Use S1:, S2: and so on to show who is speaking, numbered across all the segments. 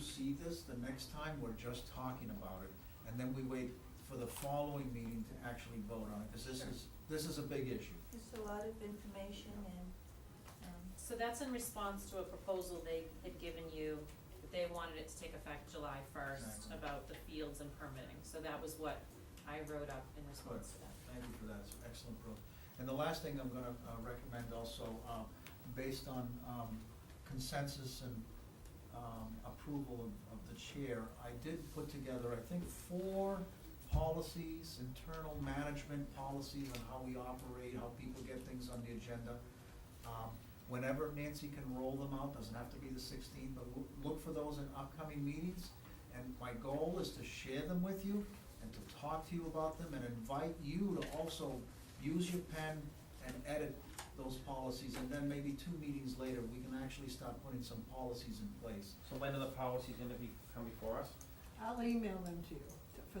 S1: see this, the next time, we're just talking about it, and then we wait for the following meeting to actually vote on it, because this is, this is a big issue.
S2: It's a lot of information and, um,
S3: So that's in response to a proposal they had given you, that they wanted it to take effect July first
S1: Exactly.
S3: about the fields and permitting. So that was what I wrote up in response to that.
S1: Thank you for that, it's excellent proof. And the last thing I'm gonna uh, recommend also, um, based on um, consensus and um, approval of, of the chair, I did put together, I think, four policies, internal management policies on how we operate, how people get things on the agenda. Um, Whenever Nancy can roll them out, doesn't have to be the sixteenth, but loo- look for those in upcoming meetings. And my goal is to share them with you and to talk to you about them and invite you to also use your pen and edit those policies. And then maybe two meetings later, we can actually start putting some policies in place.
S4: So when are the policies gonna be, come before us?
S5: I'll email them to you to-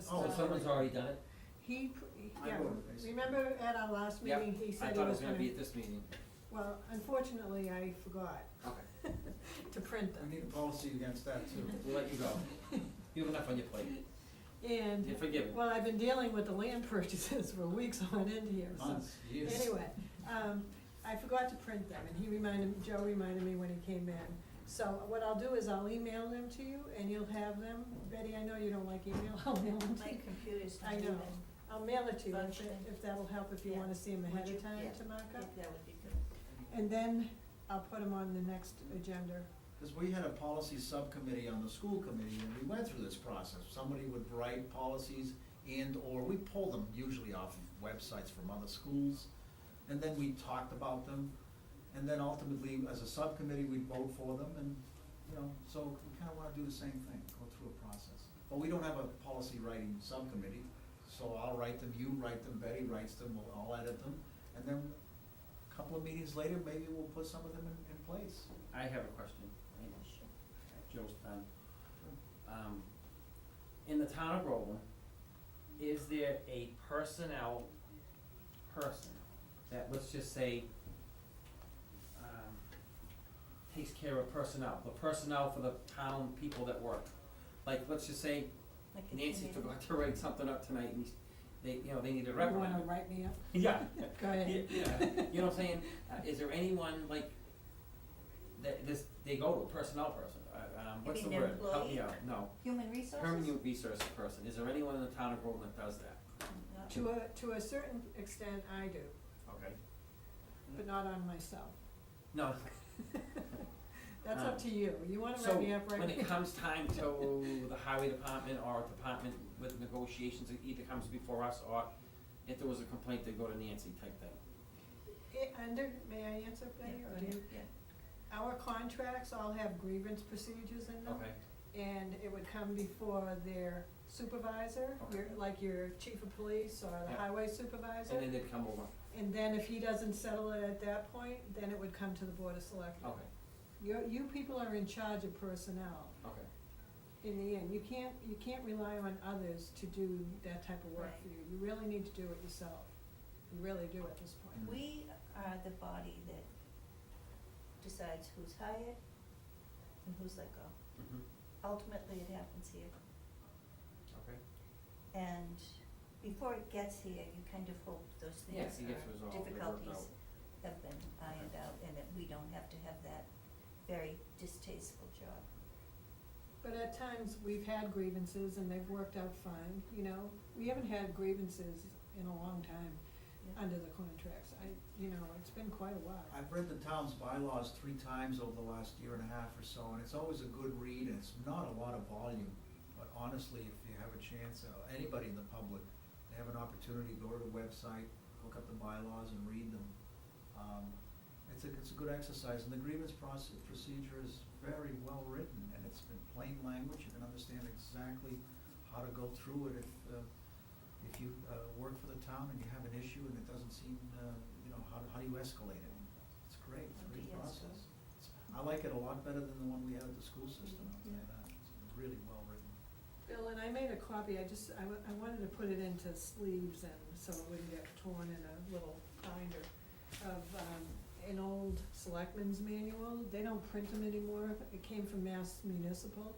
S1: Oh,
S4: Oh,
S5: for starters.
S4: someone's already done it?
S5: He, pr- he-
S1: I
S5: yeah,
S1: wrote it, basically.
S5: remember at our last
S4: Yep.
S5: meeting, he
S4: I
S5: said he
S4: thought it was
S5: was
S4: gonna be
S5: gonna,
S4: at this meeting.
S5: well, unfortunately, I forgot
S4: Okay.
S5: to print them.
S1: We need a policy against that too.
S4: We'll let you go. You have enough on your plate. You're
S5: And,
S4: forgiven.
S5: well, I've been dealing with the land purchases for weeks on end here, so.
S1: Months, years.
S5: Anyway, um, I forgot to print them, and he reminded, Joe reminded me when he came in. So what I'll do is I'll email them to you, and you'll have them. Betty, I know you don't like email, I'll mail them to
S2: my
S5: you.
S2: computer's not
S5: I
S2: even.
S5: know. I'll mail it to you, if,
S2: Functioning.
S5: if that'll help, if you
S2: Yeah.
S5: wanna see them
S2: Would
S5: ahead
S2: you-
S5: of time
S2: yeah.
S5: to mark up.
S2: That would be good.
S5: And then I'll put them on the next agenda.
S1: Because we had a policy subcommittee on the school committee, and we went through this process. Somebody would write policies and/or, we pull them usually off of websites from other schools, and then we talked about them. And then ultimately, as a subcommittee, we'd vote for them, and, you know, so we kind of want to do the same thing, go through a process. But we don't have a policy writing subcommittee, so I'll write them, you write them, Betty writes them, we'll all edit them. And then a couple of meetings later, maybe we'll put some of them in, in place.
S4: I have a question.
S2: Sure.
S4: Joe's done. Um, in the town of Groveland, is there a personnel person that, let's just say, um, takes care of personnel, the personnel for the town people that work? Like, let's just say
S2: Like a
S4: Nancy
S2: committee.
S4: forgot to write something up tonight and they, you know, they need a
S5: You wanna
S4: reprimand.
S5: write me up?
S4: Yeah.
S5: Go ahead.
S4: Yeah, you know what I'm saying? Uh, Is there anyone like, that this, they go to a personnel person, uh, um, what's the
S2: mean
S4: word?
S2: an
S4: Help me
S2: employee?
S4: out, no.
S2: Human resources?
S4: Permanent resource person, is there anyone in the town of Groveland that does that?
S2: No.
S5: To a, to a certain extent, I do,
S4: Okay.
S5: but not on myself.
S4: No,
S5: That's up to you. You wanna
S4: so
S5: write me up,
S4: when
S5: right?
S4: it comes time to the highway department or department with negotiations, it either comes before us or if there was a complaint, they go to Nancy type thing.
S5: It, Eh, under, may I answer,
S2: Yeah,
S5: Betty,
S2: go
S5: or do you?
S2: ahead, yeah.
S5: Our contracts all have grievance procedures in them.
S4: Okay,
S5: And it would come before their supervisor, your,
S4: Okay.
S5: like your chief of police or the
S4: Yeah.
S5: highway supervisor.
S4: and then they'd come over,
S5: And then if he doesn't settle it at that point, then it would come to the board of selectmen.
S4: okay,
S5: You, you people are in charge of personnel
S4: okay.
S5: in the end. You can't, you can't rely on others to do that type of work for you. You really need to do it yourself. You really do at this point.
S2: We are the body that decides who's hired and who's let go.
S4: Mhm.
S2: Ultimately, it happens here.
S4: Okay.
S2: And before it gets here, you kind of hope those
S4: Yes,
S2: things
S4: it gets
S2: are,
S4: resolved, they're worked
S2: uh, difficulties have been ironed out and that we don't have to have that very distasteful job.
S5: But at times, we've had grievances and they've worked out fine, you know? We haven't had grievances in a long time
S2: Yeah.
S5: under the contracts. I, you know, it's been quite a while.
S1: I've read the town's bylaws three times over the last year and a half or so, and it's always a good read, and it's not a lot of volume. But honestly, if you have a chance, uh, anybody in the public, they have an opportunity, go to the website, look up the bylaws and read them. Um, It's a, it's a good exercise, and the grievance process, procedure is very well written, and it's in plain language, you can understand exactly how to go through it if, uh, if you uh, work for the town and you have an issue and it doesn't seem, uh, you know, how, how do you escalate it? It's great, it's a great
S2: Okay, yes.
S1: process. It's- I like it a lot better than the one we had at the school system, I'll tell you
S2: Yeah.
S1: that. It's really well written.
S5: Bill, and I made a copy, I just, I, wa- I wanted to put it into sleeves and so it wouldn't get torn in a little binder of, um, an old selectman's manual, they don't print them anymore, it came from Mass Municipal.